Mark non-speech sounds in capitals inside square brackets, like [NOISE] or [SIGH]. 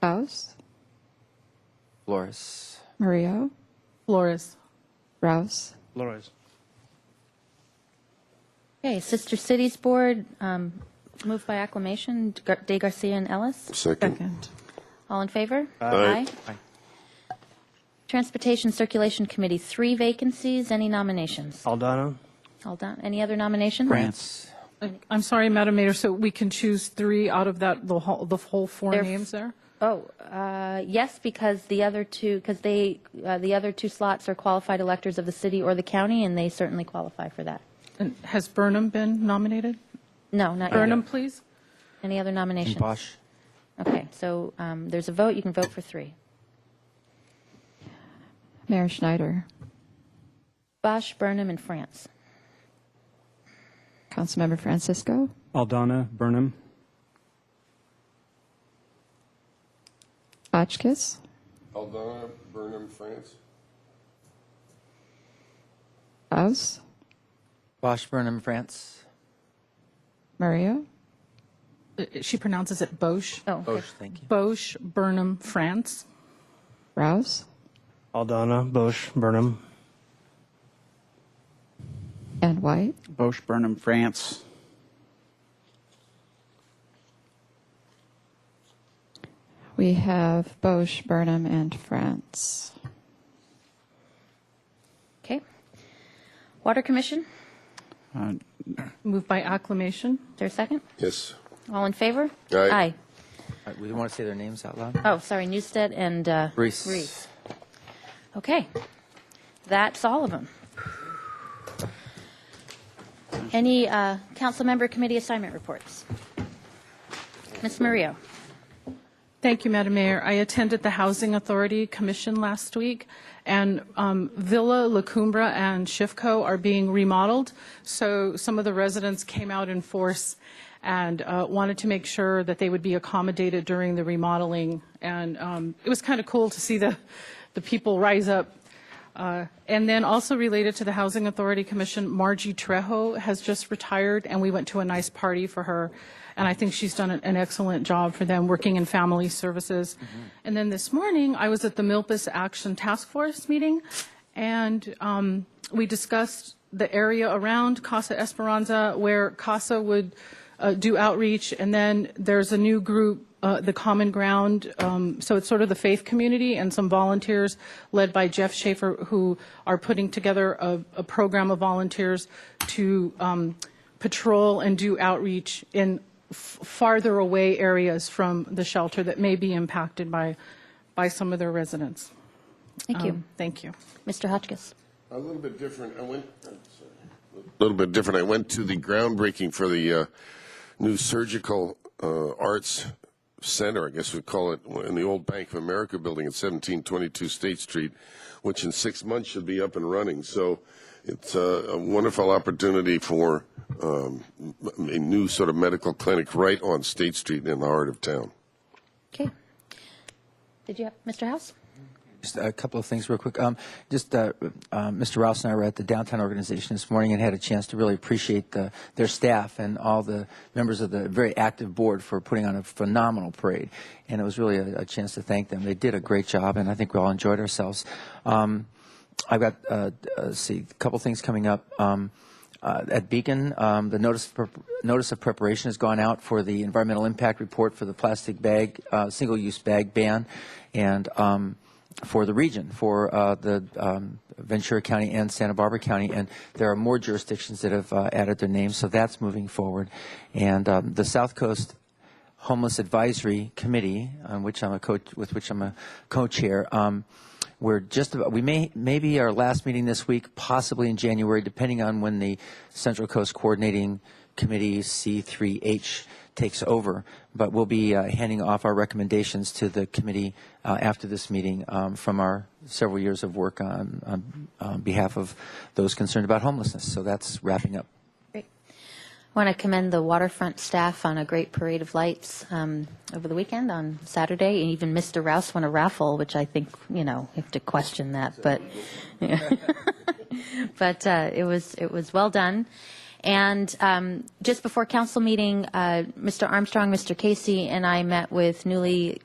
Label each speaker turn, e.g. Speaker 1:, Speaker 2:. Speaker 1: Faust,
Speaker 2: Flores.
Speaker 1: Maria,
Speaker 3: Flores.
Speaker 1: Rouse,
Speaker 4: Flores.
Speaker 5: Okay, Sister Cities Board, um, moved by acclamation, Gar- De Garcia and Ellis.
Speaker 6: Second.
Speaker 3: Second.
Speaker 5: All in favor?
Speaker 6: Aye.
Speaker 5: Transportation Circulation Committee, three vacancies. Any nominations?
Speaker 4: Aldana.
Speaker 5: All done. Any other nominations?
Speaker 2: France.
Speaker 3: I'm sorry, Madam Mayor, so we can choose three out of that, the whole, the whole four
Speaker 5: They're-
Speaker 3: names there?
Speaker 5: Oh, uh, yes, because the other two, because they, uh, the other two slots are qualified electors of the city or the county, and they certainly qualify for that.
Speaker 3: And has Burnham been nominated?
Speaker 5: No, not
Speaker 3: Burnham,
Speaker 5: yet.
Speaker 3: please?
Speaker 5: Any other
Speaker 2: And
Speaker 5: nominations?
Speaker 2: Bosch.
Speaker 5: Okay, so um, there's a vote. You can vote for three.
Speaker 1: Mayor Schneider,
Speaker 5: Bosch, Burnham, and France.
Speaker 1: Councilmember Francisco,
Speaker 7: Aldana Burnham,
Speaker 1: Hotchkiss,
Speaker 6: Aldana Burnham, France.
Speaker 1: Faust,
Speaker 2: Bosch Burnham, France.
Speaker 1: Maria,
Speaker 3: Uh, She pronounces it Boche.
Speaker 5: Oh, okay.
Speaker 2: Bosch, thank you.
Speaker 3: Boche, Burnham, France.
Speaker 1: Rouse,
Speaker 4: Aldana. Bosch. Burnham.
Speaker 1: and White.
Speaker 8: Bosch Burnham, France.
Speaker 1: We have Bosch, Burnham, and France.
Speaker 5: okay. Water Commission,
Speaker 8: Uh,
Speaker 3: Moved by acclamation.
Speaker 5: is there a second?
Speaker 6: Yes.
Speaker 5: All in favor?
Speaker 6: Aye.
Speaker 2: All right, we want to say their names out loud.
Speaker 5: Oh, sorry, Newstead and uh,
Speaker 2: Reese.
Speaker 5: Reese. Okay. That's all of them. Any uh, council member committee assignment reports? Ms. Mario?
Speaker 3: Thank you, Madam Mayor. I attended the Housing Authority Commission last week, and um, Villa La Cumbra and Shifco are being remodeled, so some of the residents came out in force and uh, wanted to make sure that they would be accommodated during the remodeling, and um, it was kind of cool to see the, the people rise up. Uh, And then also related to the Housing Authority Commission, Margie Trejo has just retired, and we went to a nice party for her. And I think she's done an- an excellent job for them, working in family services. And then this morning, I was at the Milpas Action Task Force meeting, and um, we discussed the area around Casa Esperanza where Casa would uh, do outreach, and then there's a new group, uh, the Common Ground. um, So it's sort of the faith community and some volunteers led by Jeff Schaefer who are putting together a, a program of volunteers to um, patrol and do outreach in f- farther away areas from the shelter that may be impacted by, by some of their residents.
Speaker 5: Thank you.
Speaker 3: Um, Thank you.
Speaker 5: Mr. Hotchkiss?
Speaker 6: A little bit different. I went. oh, A little bit different. I went to the groundbreaking for the uh, new surgical uh, arts center. I guess we call it in the old Bank of America building at 1722 State Street, which in six months should be up and running. So it's uh, a wonderful opportunity for um, a new sort of medical clinic right on State Street in the heart of town.
Speaker 5: Okay. Did you have, Mr. House?
Speaker 2: Just a couple of things real quick. Um, just, uh, uh, Mr. Rouse and I were at the downtown organization this morning and had a chance to really appreciate the, their staff and all the members of the very active board for putting on a phenomenal parade. And it was really a, a chance to thank them. They did a great job and I think we all enjoyed ourselves. Um, I've got, uh, uh, let's see, a couple things coming up. Um, uh, at Beacon, um, the notice, of prep- notice of preparation has gone out for the environmental impact report for the plastic bag, uh, single-use bag ban, and um, for the region, for uh, the um, Ventura County and Santa Barbara County, and there are more jurisdictions that have uh, added their names, so that's moving forward. And um, the South Coast Homeless Advisory Committee, on which I'm a co- with which I'm a co-chair. Um, we're just about, we may, maybe our last meeting this week, possibly in January, depending on when the Central Coast Coordinating Committee C3H takes over. But we'll be uh, handing off our recommendations to the committee uh, after this meeting um, from our several years of work on, on, on behalf of those concerned about homelessness. So that's wrapping up.
Speaker 5: Great. I want to commend the waterfront staff on a great parade of lights um, over the weekend on Saturday, and even Mr. Rouse won a raffle, which I think, you know, you have to question that, but, [LAUGHS] but uh, it was, it was well done. And um, just before council meeting, uh, Mr. Armstrong, Mr. Casey, and I met with newly